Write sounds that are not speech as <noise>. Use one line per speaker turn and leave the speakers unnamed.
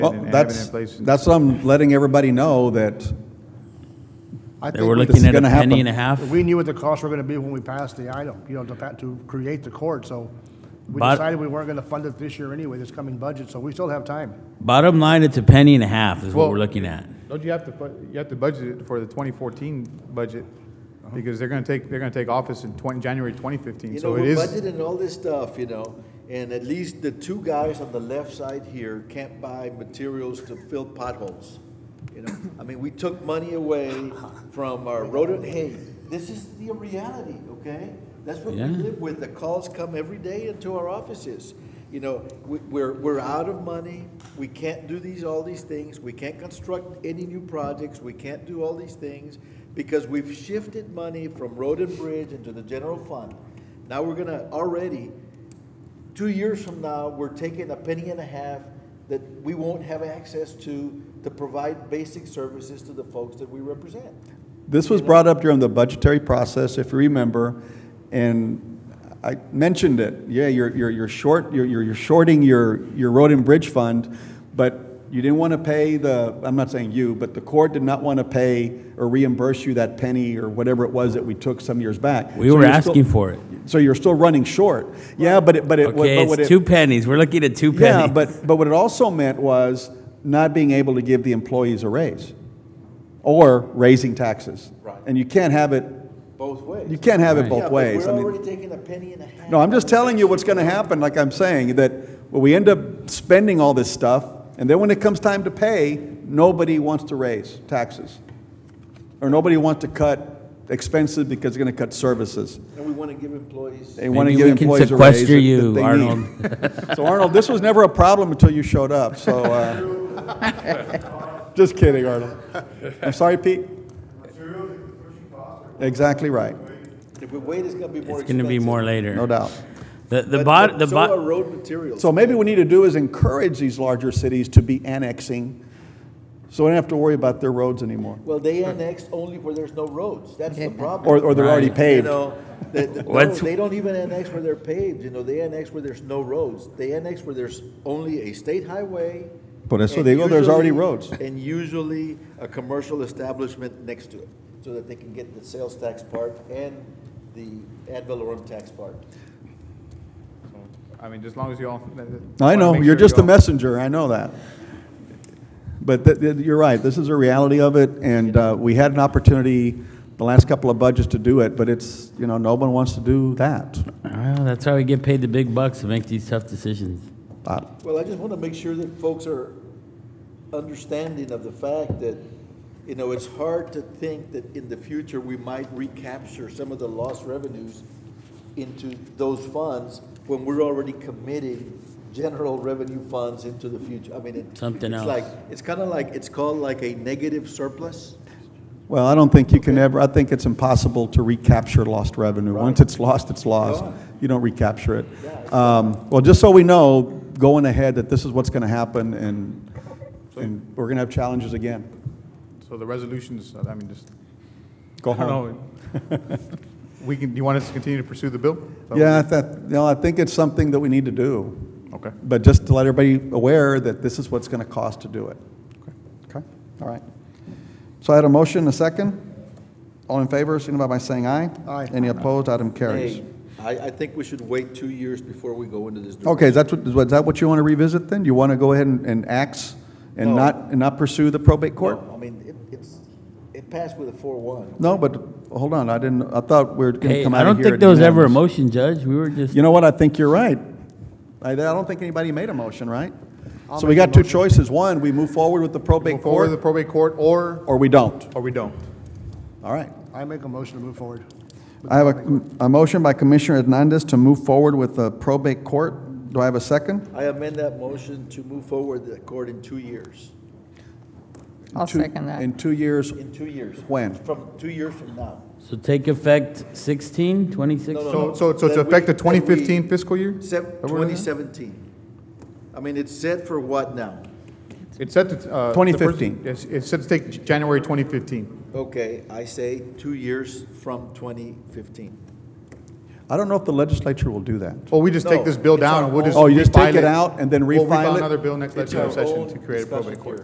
They
Well,
didn't have it in
that's,
place.
that's what I'm letting everybody know that
I
They
think
were
we-
this is
looking at a
gonna happen.
penny and a half.
We knew what the costs were gonna be when we passed the item, you know, to, pa- to create the court, so we
But-
decided we weren't gonna fund it this year anyway, this coming budget, so we still have time.
Bottom line, it's a penny and a half is what
Well-
we're looking at.
Don't you have to, bu- you have to budget it for the 2014 budget, because they're gonna take, they're gonna take office in 20, January 2015,
Uh-huh. You
so
know,
it
we're
is,
budgeting all this stuff, you know, and at least the two guys on the left side here can't buy materials to fill potholes. You know, I mean, we took money away from our rodent hay. This is the reality, okay? That's what we
Yeah.
live with. The calls come every day into our offices. You know, we, we're, we're out of money. We can't do these, all these things. We can't construct any new projects. We can't do all these things because we've shifted money from road and bridge into the general fund. Now we're gonna already, two years from now, we're taking a penny and a half that we won't have access to, to provide basic services to the folks that we represent.
This was brought up during the budgetary process, if you remember, and I mentioned it. Yeah, you're, you're, you're short, you're, you're you're shorting your, your road and bridge fund, but you didn't want to pay the, I'm not saying you, but the court did not want to pay or reimburse you that penny or whatever it was that we took some years back.
We
So
were
you're still-
asking for it.
So you're still running short. Yeah, but it, but it. but
Okay,
what
it's
it-
two pennies. We're looking at two
yeah,
pennies.
but, but what it also meant was not being able to give the employees a raise or raising taxes.
Right.
And you can't have it,
Both ways.
you can't have it
Yeah,
both
but
ways. I
We're
mean,
already taking a penny and a half.
no, I'm just telling you what's going to happen, like I'm saying, that when we end up spending all this stuff, and then when it comes time to pay, nobody wants to raise taxes. Or nobody wants to cut expenses because they're going to cut services.
And we want to give employees.
They want to
Maybe
give
we can
employees a raise.
sequester
that- that
you,
they need.
Arnold.
So Arnold, this was never a problem until you showed up, so, uh, just kidding, Arnold. I'm sorry, Pete? Exactly right,
If we wait, it's going to be more
it's
expensive.
going to be more later.
no doubt.
The, the
But-
bot,
but
the
So
bot.
are road materials.
So maybe what we need to do is encourage these larger cities to be annexing, so we don't have to worry about their roads anymore,
Well, they annex only where there's no roads. That's the problem.
or, or they're already
Right.
paved.
You know,
<laughs>
they, they- no,
What's-
they don't even annex where they're paved, you know, they annex where there's no roads. They annex where there's only a state highway.
Por eso
and
digo, there's already
usually-
roads.
And usually a commercial establishment next to it, so that they can get the sales tax part and the ad valorem tax part.
I mean, just as long as you all.
I
wanna
know,
make
you're
sure
just
you
a
all-
messenger, I know that. But th- th- you're right, this is a reality of it, and uh, we had an opportunity the last couple of budgets to do it, but it's, you know, no one wants to do that.
Well, that's why we get paid the big bucks to make these tough decisions.
Uh,
Well, I just want to make sure that folks are understanding of the fact that, you know, it's hard to think that in the future, we might recapture some of the lost revenues into those funds when we're already committing general revenue funds into the future. I mean, it-
Something
it's
else.
like, it's kind of like, it's called like a negative surplus.
Well, I don't think you can ever, I think it's impossible to recapture lost revenue. Once it's lost, it's lost.
Gone.
You don't recapture it. Um, Well, just so we know, going ahead, that this is what's going to happen, and, and we're going to have challenges again.
So the resolutions, uh, I mean, just.
Go
I don't
home.
know. We can, you want us to continue to pursue the bill? Is that what-
Yeah, I thought, no, I think it's something that we need to do.
Okay.
But just to let everybody aware that this is what's going to cost to do it. Okay, all right. So I had a motion, a second. All in favor, signify by saying aye.
Aye.
Any opposed, item carries.
Hey, I, I think we should wait two years before we go into this.
Okay, is that what, is that what you want to revisit then? You want to go ahead and, and ax and
No.
not, and not pursue the probate court?
No, I mean, it- it's, it passed with a four-one.
No, but, hold on, I didn't, I thought we were going to
Hey,
come
I
out of here.
don't think
at
there was ever a
unanimous.
motion, Judge. We were just.
You know what, I think you're right. I, I don't think anybody made a motion, right?
I'll
So we
make a
got two
motion.
choices. One, we move forward with the probate
Move forward to the
court,
probate court, or,
or we don't.
or we don't.
All right.
I make a motion to move forward.
I have a, a motion by Commissioner Hernandez to move forward with the probate court. Do I have a second?
I amend that motion to move forward the court in two years.
I'll
Two-
second that.
In two years,
In two years.
When?
From two years from now.
So take effect 16, 26?
No, no,
So, so so
That
to
we-
affect the
that we-
2015 fiscal year?
Except
That we're looking at?
2017. I mean, it's set for what now?
It's set to. uh, the first-
2015.
It's, it's set to take January 2015.
Okay, I say two years from 2015.
I don't know if the legislature will do that.
Well, we just take
No,
this bill
it's
down
our
and we'll just.
own- Oh, you just take
refile
it out and then
We'll
refile it?
another bill next
It's our
legislative session
own
to create a
discussion
probate court.
here.